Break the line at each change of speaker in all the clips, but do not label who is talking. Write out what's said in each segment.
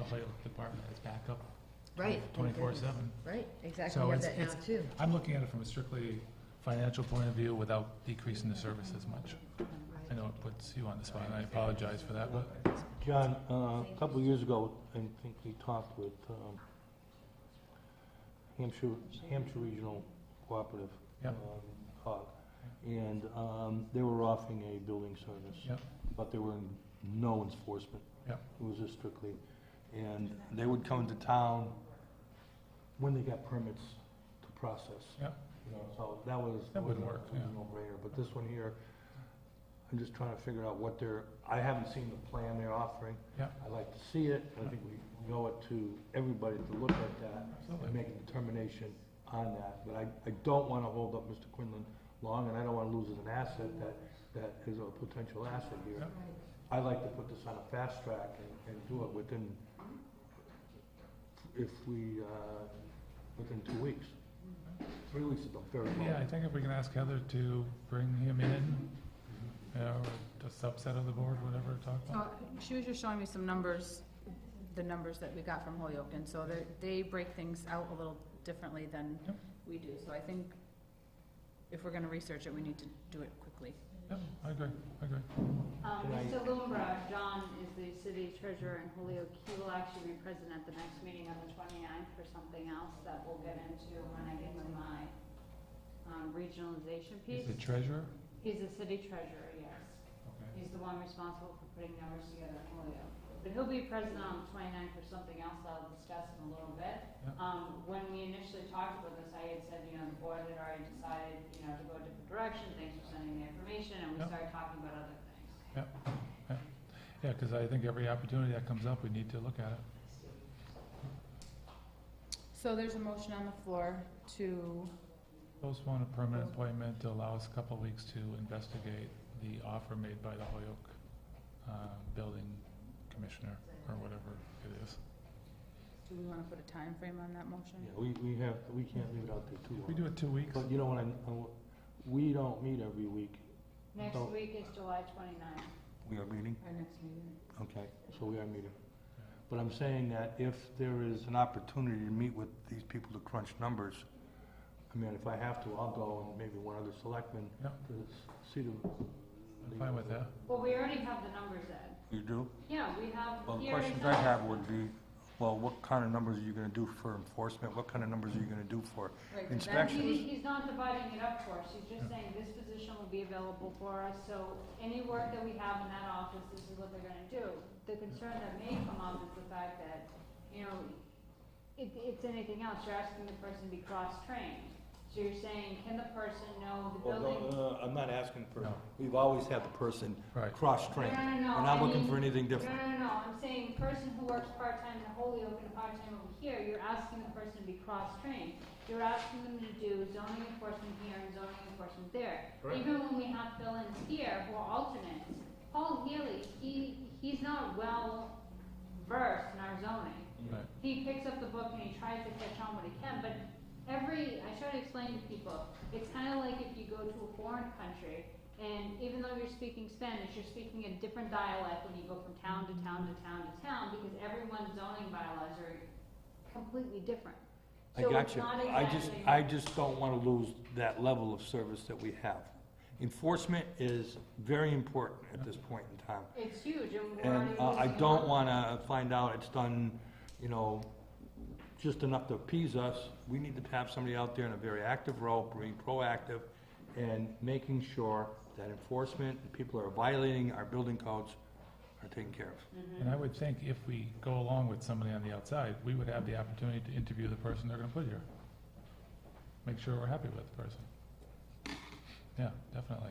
platelet department is back up
Right.
twenty-four seven.
Right, exactly,
So
we have
it's-
that now
it's-
too.
I'm looking at it from a strictly financial point of view without decreasing the service as much. I know it puts you on the spot, and I apologize for that, but
John, uh, a couple of years ago, I think we talked with um, Hampshire, Hampshire Regional Cooperative.
Yeah.
um, HOG, And um, they were offering a building service.
Yeah.
But there were no enforcement.
Yeah.
It was just strictly, and they would come to town when they got permits to process.
Yeah.
You know, So that was.
That would work, yeah.
No brainer, but this one here, I'm just trying to figure out what they're, I haven't seen the plan they're offering.
Yeah.
I'd like to see it, I think we we owe it to everybody to look at that and
absolutely.
make a determination on that. But I, I don't wanna hold up Mr. Quinlan long, and I don't wanna lose as an asset that, that is a potential asset here.
Yeah.
I'd like to put this on a fast track and, and do it within, if we, uh, within two weeks. Three weeks is a very
Yeah, I
long.
think if we can ask Heather to bring him in, you know, or a subset of the board, whatever, to talk
Uh,
about.
She was just showing me some numbers, the numbers that we got from Holyoke, and so they, they break things out a little differently than
Yep.
we do. So I think if we're gonna research it, we need to do it quickly.
Yeah, I agree, I agree.
Um,
Can I-
Mr. Lumbrough, John is the city treasurer in Holyoke. He will actually be present at the next meeting on the 29th for something else that we'll get into when I get to my um, regionalization
He's
piece.
the treasurer?
He's the city treasurer, yes.
Okay.
He's the one responsible for putting numbers together in Holyoke. But he'll be present on the 29th for something else that I'll discuss in a little bit.
Yeah.
Um, when we initially talked about this, I had said, you know, the board had already decided, you know, to go a different direction, thanks for sending the information, and we
Yeah.
started talking about other things.
Yeah, because I think every opportunity that comes up, we need to look at it.
So there's a motion on the floor to,
Postpone a permanent appointment to allow us a couple of weeks to investigate the offer made by the Holyoke uh, Building Commissioner, or whatever it is.
do we wanna put a time frame on that motion?
Yeah, we, we have, we can't leave it out there too long.
We do it two weeks.
But you know what, I, I- we don't meet every week.
Next
Don't-
week is July twenty-ninth.
We are meeting?
Our next meeting.
Okay, so we are meeting. But I'm saying that if there is an opportunity to meet with these people to crunch numbers, I mean, if I have to, I'll go and maybe one other selectman
Yeah.
to s- see them.
I'm fine with that.
Well, we already have the numbers, Ed.
You do?
Yeah, we have,
Well, the
he already
questions I
said,
have would be, well, what kind of numbers are you gonna do for enforcement? What kind of numbers are you gonna do for
Right, but that-
inspection?
he, he's not dividing it up for us, he's just saying this position will be available for us, so any work that we have in that office, this is what they're gonna do. The concern that may come up is the fact that, you know, it, it's anything else, you're asking the person to be cross-trained. So you're saying, can the person know the
Well,
building?
no, uh, I'm not asking for,
No.
we've always had the person
Right.
cross-trained.
No, no, no,
We're not
I
looking
mean-
for anything different.
No, no, no, I'm saying person who works part-time in Holyoke and part-time over here, you're asking the person to be cross-trained. You're asking them to do zoning enforcement here and zoning enforcement there.
Correct.
Even when we have fill-ins here who are alternates, Paul Healy, he, he's not well versed in our zoning
Right.
he picks up the book and he tries to catch on what he can, but every, I try to explain to people, it's kind of like if you go to a foreign country, and even though you're speaking Spanish, you're speaking a different dialect when you go from town to town to town to town, because everyone's zoning bylaws are completely different.
I
So
got
it's
you.
not
I just,
exactly-
I just don't want to lose that level of service that we have. Enforcement is very important at this point in time.
It's huge, and we're already
And uh, I
losing
don't
money.
want to find out it's done, you know, just enough to appease us. We need to have somebody out there in a very active role, being proactive, and making sure that enforcement, and people who are violating our building codes are taken care of.
Mm-hmm.
And I would think if we go along with somebody on the outside, we would have the opportunity to interview the person they're going to put here. Make sure we're happy with the person. Yeah, definitely.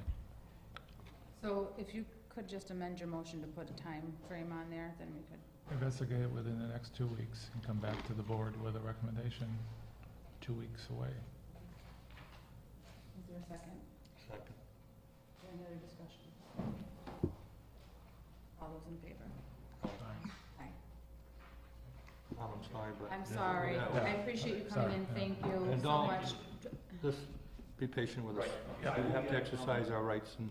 So if you could just amend your motion to put a time frame on there, then we could.
Investigate it within the next two weeks and come back to the board with a recommendation two weeks away.
Is there a second?
Second.
Any other discussion? All those in favor?
Tom, I'm sorry, but.
I'm sorry,
Yeah.
I appreciate you coming in, thank you
And
so
don't-
much.
Just be patient with us. We
Yeah.
have to exercise our rights, and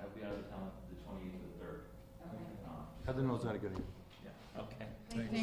I'll be out of town the twenty-eighth of the third.
Okay.
Um,
Heather knows how to get it.
Yeah, okay.
Thanks.